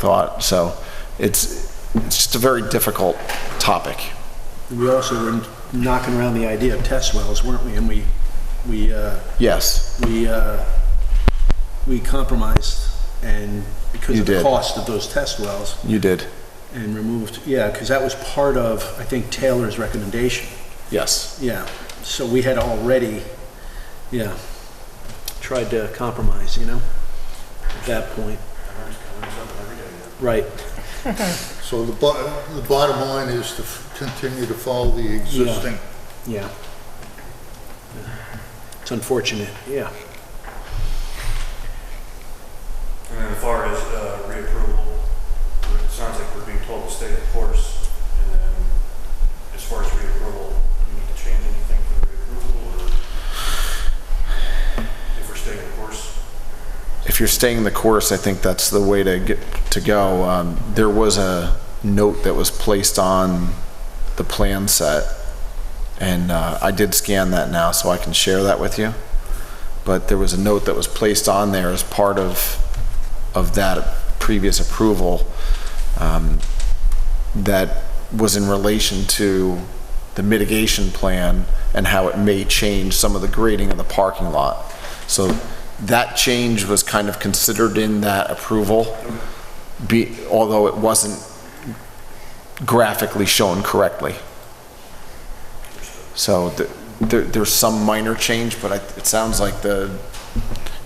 thought. So it's, it's just a very difficult topic. We also were knocking around the idea of test wells, weren't we? And we, we, uh, Yes, we, uh, we compromised and because You of the did. cost of those test wells you did. and removed, yeah, because that was part of, I think, Taylor's recommendation. Yes. Yeah, so we had already, yeah, tried to compromise, you know, at that point. Right, So the bo- the bottom line is to f- continue to follow the existing. yeah. It's unfortunate, yeah. And then as far as uh, reapproval, it sounds like we're being told to stay the course. And then as far as reapproval, do we need to change anything for the reapproval or if we're staying the course? If you're staying the course, I think that's the way to get, to go. Um, There was a note that was placed on the plan set, and uh, I did scan that now, so I can share that with you. But there was a note that was placed on there as part of, of that previous approval. um, that was in relation to the mitigation plan and how it may change some of the grading of the parking lot. So that change was kind of considered in that approval, be, although it wasn't graphically shown correctly. So th- there, there's some minor change, but I- it sounds like the,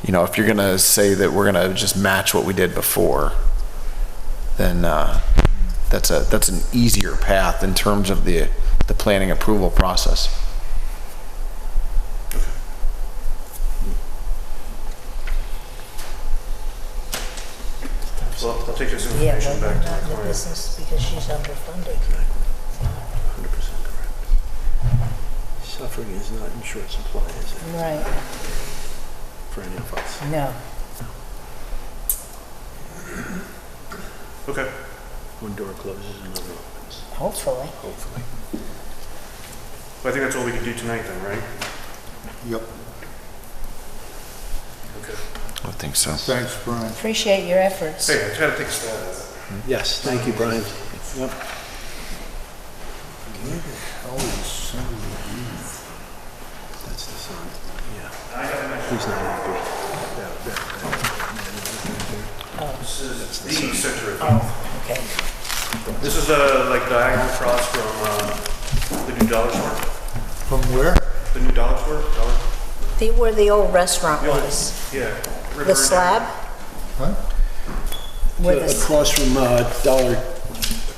you know, if you're gonna say that we're gonna just match what we did before, then uh, that's a, that's an easier path in terms of the, the planning approval process. So I'll- I'll take this Yeah, information but back to not my in the client. business because she's underfunded. Hundred percent correct. Suffering is not in short supply, is it, Right, for any of us? no. Okay. One door closes, another opens, Hopefully. hopefully. Well, I think that's all we can do tonight then, right? Yep, Okay. I think so. thanks, Brian. Appreciate your efforts. Hey, I tried to take a stab at it. Yes, thank you, Brian. Yep. How is some of That's the sign, yeah. He's not happy. That- that- This is the center of, Oh, okay. this is uh, like diagonal across from um, the new Dollar Store, the- From where? the new Dollar Store, Dollar, The, where the old restaurant was, yeah. River the and- slab, Huh? where the, Across from uh, Dollar,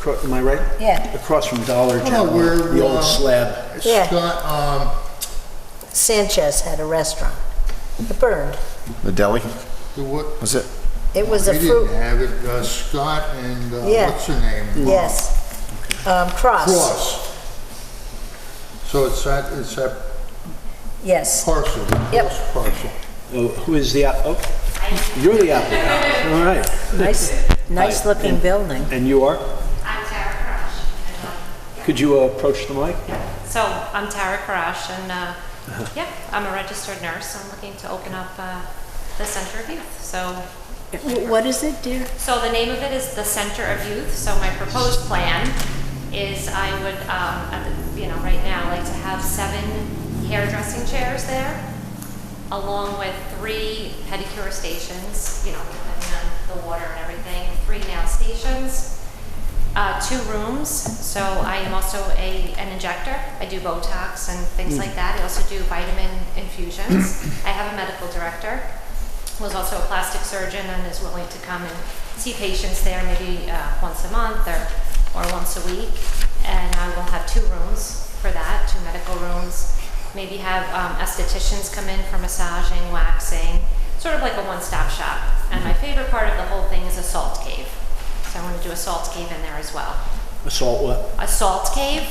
acro- am I right? yeah, Across from Dollar General, where, the uh, old slab. Yeah. Scott, um, Sanchez had a restaurant. It burned. The deli, the what? was it? It was We a Oh, didn't fruit, have it, uh, Scott and, uh, Yeah. what's her name? yes. Um, Cross, Cross. So it's that, it's that yes. parcel, the Yep. cross parcel. Oh, Who is the, app- oh, you're the applicant, all right. Nice, nice looking building. And you are? I'm Tara Karash. Could you uh, approach the mic? So I'm Tara Karash, and uh, yeah, I'm a registered nurse. I'm looking to open up uh, the Center of Youth. So, What is it, dear? so the name of it is the Center of Youth. So my proposed plan is I would, um, at the- you know, right now, like to have seven hairdressing chairs there, along with three pedicure stations. You know, depending on the water and everything, three nail stations. uh, two rooms, so I am also a, an injector. I do Botox and things like that. I also do vitamin infusions. I have a medical director who is also a plastic surgeon and is willing to come and see patients there maybe uh, once a month or, or once a week. And I will have two rooms for that, two medical rooms. Maybe have um, estheticians come in for massaging, waxing, sort of like a one-stop shop. And my favorite part of the whole thing is a salt cave. So I want to do a salt cave in there as well. Assault what? A salt cave?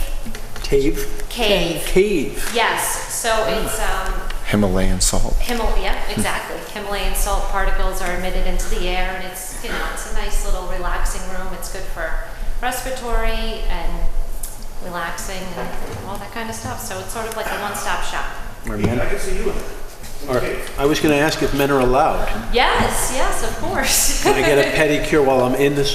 Cave? Cave. Cave. Yes, so it's um, Himalayan salt. Himalaya, exactly. Himalayan salt particles are emitted into the air, and it's you know it's a nice little relaxing room. It's good for respiratory and relaxing and all that kind of stuff. So it's sort of like a one-stop shop. Are men- I can see you in it. are- I was going to ask if men are allowed. Yes, yes, of course. Can I get a pedicure while I'm in the